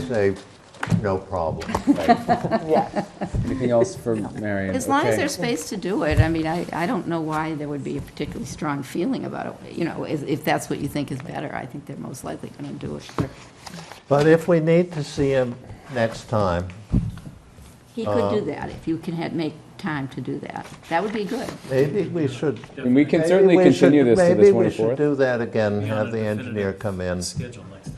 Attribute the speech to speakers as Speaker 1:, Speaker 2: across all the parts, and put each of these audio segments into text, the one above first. Speaker 1: say, no problem.
Speaker 2: Yeah.
Speaker 3: Anything else for Marion?
Speaker 4: As long as
Speaker 3: Okay.
Speaker 4: there's space to do it, I mean, I, I don't know why there would be a particularly strong feeling about it, you know, if, if that's what you think is better, I think they're most likely gonna do it.
Speaker 1: But if we need to see him next time,
Speaker 4: He could
Speaker 3: Um,
Speaker 4: do that, if you can had, make time to do that, that would be good.
Speaker 1: maybe we should.
Speaker 3: And we can
Speaker 1: maybe
Speaker 3: certainly
Speaker 1: we should-
Speaker 3: continue this to the
Speaker 1: Maybe we should
Speaker 3: 24th.
Speaker 1: do that again,
Speaker 5: Be on
Speaker 1: have
Speaker 5: a
Speaker 1: the engineer
Speaker 5: definitive
Speaker 1: come in.
Speaker 5: Schedule next time.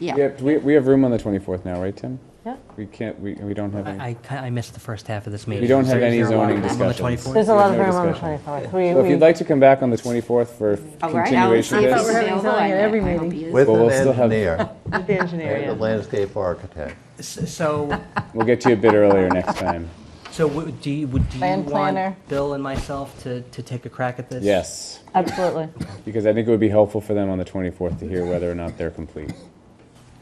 Speaker 3: We
Speaker 4: Yeah,
Speaker 3: have, we, we have room on the 24th now, right, Tim?
Speaker 2: Yeah.
Speaker 3: We can't, we, we don't have any,
Speaker 6: I, I- I missed the first half of this meeting.
Speaker 3: we don't have any
Speaker 6: Is there a lot
Speaker 3: zoning
Speaker 6: of room on the
Speaker 3: discussions.
Speaker 6: 24th?
Speaker 2: There's a lot of
Speaker 3: no
Speaker 2: room on the
Speaker 3: discussion.
Speaker 2: 24th.
Speaker 3: So if
Speaker 2: We,
Speaker 3: you'd
Speaker 2: we,
Speaker 3: like to come back on the 24th for
Speaker 4: all right, I'll
Speaker 3: continuation
Speaker 4: see
Speaker 3: of
Speaker 4: if
Speaker 2: I thought
Speaker 4: he's
Speaker 3: this.
Speaker 2: we were having
Speaker 4: available, I
Speaker 2: zoning at every
Speaker 4: I hope
Speaker 2: meeting.
Speaker 4: he is.
Speaker 1: With
Speaker 3: But
Speaker 1: an
Speaker 3: we'll still have-
Speaker 1: engineer,
Speaker 2: with the engineer,
Speaker 1: and a
Speaker 2: yeah.
Speaker 1: landscape architect.
Speaker 6: S- So,
Speaker 3: We'll get to you a bit earlier next time.
Speaker 6: so w- do you, would, do you
Speaker 2: Land planner.
Speaker 6: want Bill and myself to, to take a crack at this?
Speaker 3: Yes,
Speaker 2: Absolutely.
Speaker 3: because I think it would be helpful for them on the 24th to hear whether or not they're complete.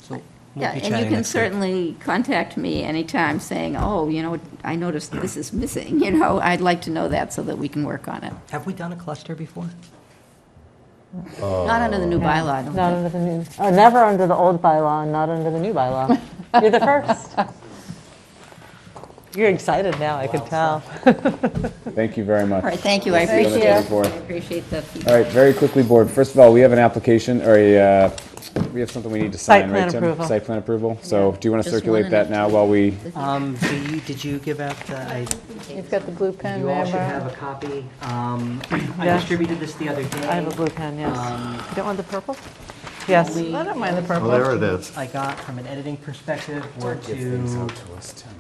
Speaker 6: So we'll
Speaker 4: Yeah,
Speaker 6: be
Speaker 4: and you
Speaker 6: chatting
Speaker 4: can
Speaker 6: next week.
Speaker 4: certainly contact me anytime saying, oh, you know, I noticed this is missing, you know, I'd like to know that so that we can work on it.
Speaker 6: Have we done a cluster before?
Speaker 4: Not under the
Speaker 3: Oh.
Speaker 4: new bylaw, I don't
Speaker 2: Not
Speaker 4: think.
Speaker 2: under the new, oh, never under the old bylaw and not under the new bylaw. You're the first. You're excited now, I can tell.
Speaker 3: Thank you very much.
Speaker 4: All right, thank you, I
Speaker 3: See you on the
Speaker 4: appreciate it.
Speaker 3: 24th.
Speaker 4: I appreciate the feedback.
Speaker 3: All right, very quickly, board. First of all, we have an application or a, uh, we have something we need to
Speaker 2: Site
Speaker 3: sign,
Speaker 2: plan
Speaker 3: right, Tim?
Speaker 2: approval.
Speaker 3: Site plan approval. So do you want to
Speaker 4: Just
Speaker 3: circulate
Speaker 4: one
Speaker 3: that
Speaker 4: and
Speaker 3: now while we,
Speaker 6: Um, do you, did you give out the, I,
Speaker 2: You've got the blue pen,
Speaker 6: you all should have
Speaker 2: remember?
Speaker 6: a copy. Um, I
Speaker 2: Yeah.
Speaker 6: distributed this the other day.
Speaker 2: I have a blue pen, yes.
Speaker 6: Um,
Speaker 2: You don't want the purple? Yes.
Speaker 6: only-
Speaker 2: I don't mind the
Speaker 1: Well,
Speaker 2: purple.
Speaker 1: there it is.
Speaker 6: I got from an editing perspective were to,
Speaker 3: things
Speaker 6: is
Speaker 3: out to us, Tim.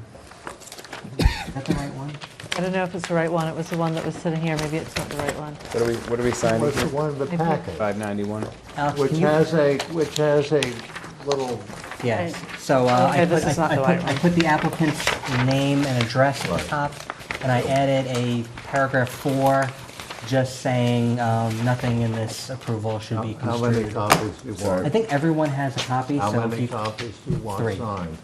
Speaker 6: that the right one?
Speaker 2: I don't know if it's the right one. It was the one that was sitting here. Maybe it's not the right one.
Speaker 3: What are we, what are we signing?
Speaker 1: Was the one in the packet,
Speaker 3: 591.
Speaker 6: Alex,
Speaker 1: which
Speaker 6: can you-
Speaker 1: has a, which has a little,
Speaker 6: Yes, so uh,
Speaker 2: Okay,
Speaker 6: I
Speaker 2: this
Speaker 6: put,
Speaker 2: is not
Speaker 6: I- I
Speaker 2: the
Speaker 6: put,
Speaker 2: right
Speaker 6: I
Speaker 2: one.
Speaker 6: put the applicant's name and address at the top, and I added a paragraph four, just saying, um, nothing in this approval should be
Speaker 1: how many
Speaker 6: construed.
Speaker 1: copies do you
Speaker 6: I
Speaker 1: want?
Speaker 6: think everyone has a copy,
Speaker 1: How
Speaker 6: so if
Speaker 1: many
Speaker 6: you,
Speaker 1: copies do you want
Speaker 6: Three.
Speaker 1: signed?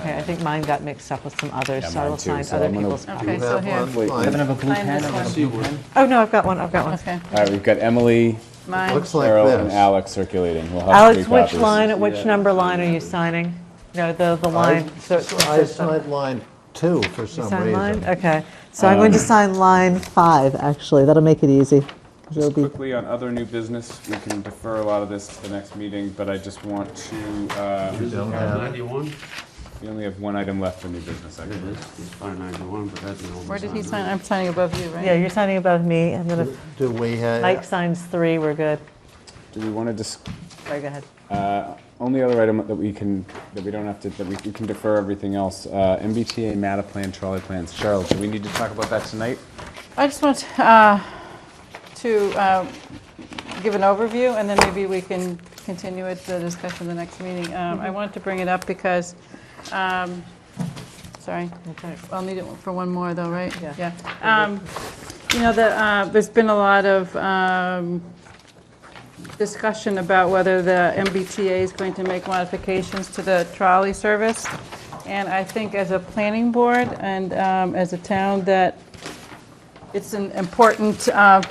Speaker 2: Okay, I think mine got mixed up with some others,
Speaker 3: Yeah,
Speaker 2: so I
Speaker 3: mine
Speaker 2: will
Speaker 3: too,
Speaker 2: find
Speaker 3: so
Speaker 2: other
Speaker 3: I'm gonna-
Speaker 2: people's
Speaker 1: Do you
Speaker 2: copies. So
Speaker 1: have
Speaker 2: here.
Speaker 1: one?
Speaker 3: Wait.
Speaker 6: having
Speaker 1: Please.
Speaker 6: a blue
Speaker 7: Sign
Speaker 6: pen,
Speaker 7: this
Speaker 6: I have a blue pen.
Speaker 2: Oh, no, I've got one. I've got one.
Speaker 7: Okay.
Speaker 3: All right, we've got Emily,
Speaker 7: Mine,
Speaker 1: Looks like
Speaker 3: Carol, and
Speaker 1: this.
Speaker 3: Alex circulating. We'll have
Speaker 2: Alex,
Speaker 3: three
Speaker 2: which
Speaker 3: copies.
Speaker 2: line, which number line are you signing? No, the, the line, so it's
Speaker 1: I
Speaker 2: consistent.
Speaker 1: signed line two for some
Speaker 2: Sign line?
Speaker 1: reason.
Speaker 2: Okay, so
Speaker 3: Um,
Speaker 2: I'm going to sign line five, actually. That'll make it easy. 'cause it'll
Speaker 3: Just
Speaker 2: be-
Speaker 3: quickly on other new business, we can defer a lot of this to the next meeting, but I just want to, uh,
Speaker 1: You don't have it?
Speaker 8: 91?
Speaker 3: we only have one item left for new business, actually.
Speaker 8: It's by 91, but that's an old
Speaker 7: where did he
Speaker 8: design.
Speaker 7: sign? I'm signing above you, right?
Speaker 2: Yeah, you're signing above me, and then if
Speaker 1: Do we have?
Speaker 2: Mike signs three, we're good.
Speaker 3: Do we want to dis,
Speaker 2: Sorry, go ahead.
Speaker 3: uh, only other item that we can, that we don't have to, that we we can defer everything else, uh, MBTA, MATA plan, trolley plans. Cheryl, do we need to talk about that tonight?
Speaker 7: I just want uh, to uh, give an overview, and then maybe we can continue it, the discussion, the next meeting. Um, I wanted to bring it up because, um, sorry, I'll need it for one more, though, right?
Speaker 2: Yeah.
Speaker 7: Yeah. Um, You know, the, uh, there's been a lot of um, discussion about whether the MBTA is going to make modifications to the trolley service, and I think as a planning board and um, as a town, that it's an important uh,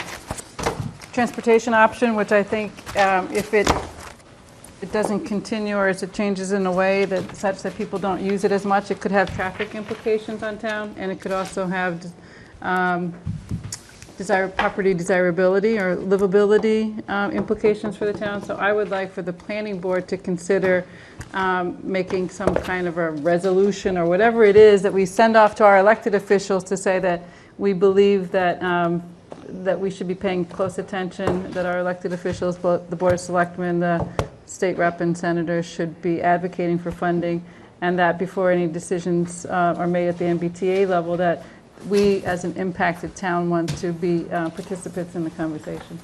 Speaker 7: transportation option, which I think um, if it, it doesn't continue or as it changes in a way that such that people don't use it as much, it could have traffic implications on town, and it could also have um, desire, property desirability or livability um, implications for the town. So I would like for the planning board to consider um, making some kind of a resolution or whatever it is that we send off to our elected officials to say that we believe that, um, that we should be paying close attention, that our elected officials, both the Board of Selectmen, the state rep and senators should be advocating for funding, and that before any decisions uh, are made at the MBTA level, that we, as an impacted town, want to be uh, participants in the conversation.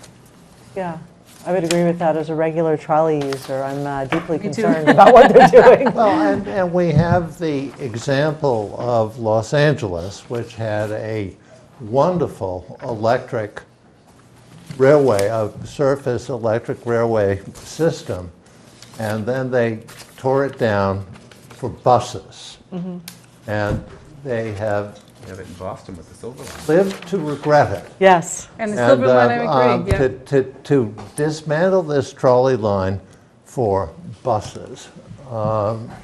Speaker 2: Yeah, I would agree with that. As a regular trolley user, I'm uh, deeply
Speaker 7: Me too.
Speaker 2: concerned about what they're doing.
Speaker 1: Well, and, and we have the example of Los Angeles, which had a wonderful electric railway, a surface electric railway system, and then they tore it down for buses.
Speaker 7: Mm-hmm.
Speaker 1: And they have
Speaker 3: We have it in Boston with the silver line.
Speaker 1: lived to regret it.
Speaker 2: Yes,
Speaker 7: And the
Speaker 1: And,
Speaker 7: Silver Line, I
Speaker 1: uh,
Speaker 7: agree,
Speaker 1: uh,
Speaker 7: yeah.
Speaker 1: to- To, to dismantle this trolley line for buses, um,